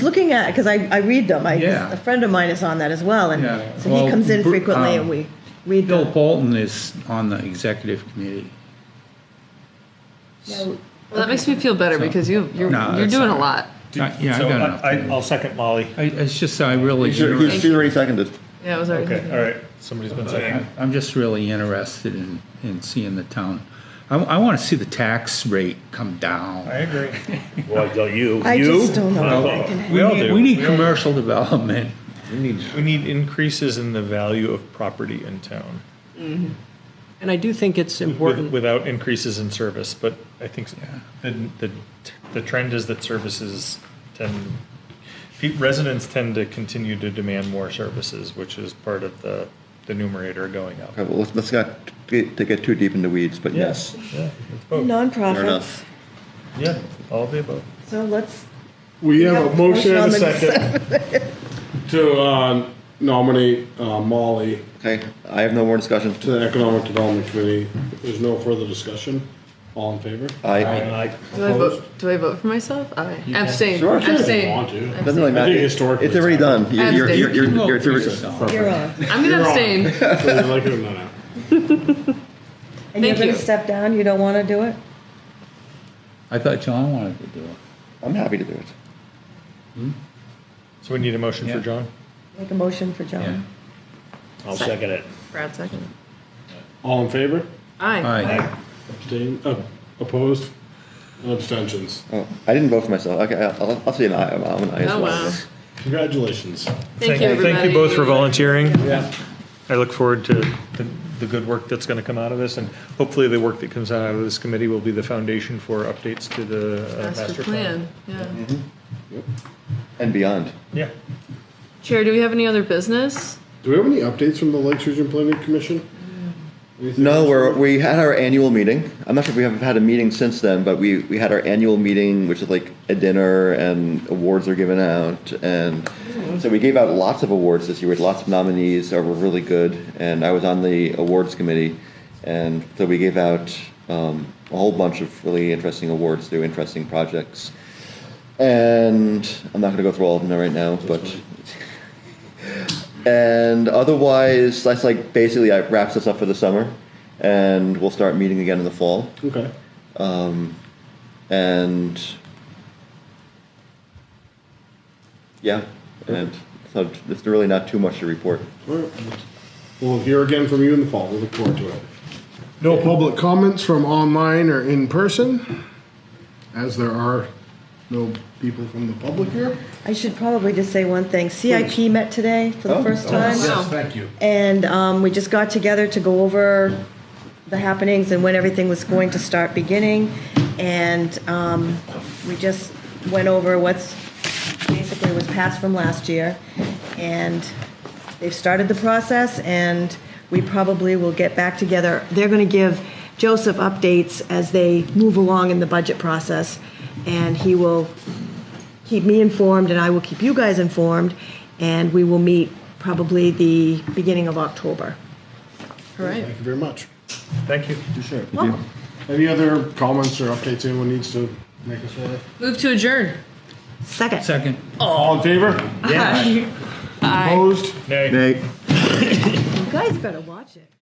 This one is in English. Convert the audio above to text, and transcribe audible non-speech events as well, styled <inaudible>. looking at because I, I read them. I Yeah. a friend of mine is on that as well, and Yeah. so Well, he comes in Br- frequently, um, and we read Bill them. Bolton is on the executive committee. Yeah, Well, that makes me feel better So- because you you're, No, you're that's doing all a lot. Uh, Yeah, I So got I, enough. will second Molly. I- It's just I really, She's she's already seconded. Yeah, it was already. Okay, all right. Somebody's been I- I'm just really interested in, in seeing the town. I, I want to see the tax rate come down. I agree. <laughs> Well, don't you? I you? just don't know Oh, if I can- We all need- do. We need commercial development. We need increases in the value of property in town. Mm-hmm. And I do think it's with- important, Without increases in service, but I think s- the, the, the trend is that services tend, pe- residents tend to continue to demand more services, which is part of the, the numerator going up. Okay, well, let's, let's not get, to get too deep into weeds, but yes. Yeah, it's both. Fair nonprofits. enough. Yeah, all of the above. So let's We have have a a motion and a motion on the second to uh, nominate uh, Molly Okay, I have no more discussion. to the Economic Development Committee. If There's no further discussion. All in favor? I, Aye. Do I Opposed? vote? Do I vote for myself? I abstain. Sure, sure. If you want Abstain. to. doesn't really I matter. think historically. It's already done. You're, you're, you're, you're, you're through it. <laughs> you're on, I'm gonna You're on. abstain. Whether you like it or not. and you're Thank going to you. step down. You don't want to do it. I thought John wanted to do it. I'm happy to do it. So we need a motion for Yeah. John? Make a motion for John. Yeah. I'll second it. Brad second. All in favor? Aye. Aye. Abstain, uh, opposed? And abstentions. Oh, I didn't vote for myself. Okay, I'll, I'll- I'll say an I. I'm I'm an I as Oh wow. well. Congratulations. Thank you, everybody. Thank you both for volunteering. Yeah. I look forward to the, the good work that's going to come out of this, and hopefully the work that comes out of this committee will be the foundation for updates to the uh, Master plan. Yeah. And beyond. Yeah. Chair, do we have any other business? Do we have any updates from the Lakes Region Planning Commission? Anything No, else? we're, we had our annual meeting. I'm not sure if we have had a meeting since then, but we, we had our annual meeting, which is like a dinner and awards are given out. And so we gave out lots of awards this year. We had lots of nominees that were really good. And I was on the awards committee. And so we gave out um, a whole bunch of really interesting awards through interesting projects. And I'm not going to go through all of them right now, but and otherwise, that's like basically that wraps us up for the summer, and we'll start meeting again in the fall. Okay. And yeah, and so there's really not too much to report. All right. We'll hear again from you in the fall. We look forward to it. No public comments from online or in person, as there are no people from the public here. I should probably just say one thing. CIP met today for the Oh. first time. Wow. Thank you. And um, we just got together to go over the happenings and when everything was going to start beginning. And um, we just went over what's basically was passed from last year. And they've started the process, and we probably will get back together. They're going to give Joseph updates as they move along in the budget process, and he will keep me informed, and I will keep you guys informed, and we will meet probably the beginning of October. All right. Thank you very much. Thank you. Sure. Any other comments or updates anyone needs to make us aware? of? Move to adjourn. Second. Second. All in favor? Oh. Aye. Opposed? Nay. You guys better watch it.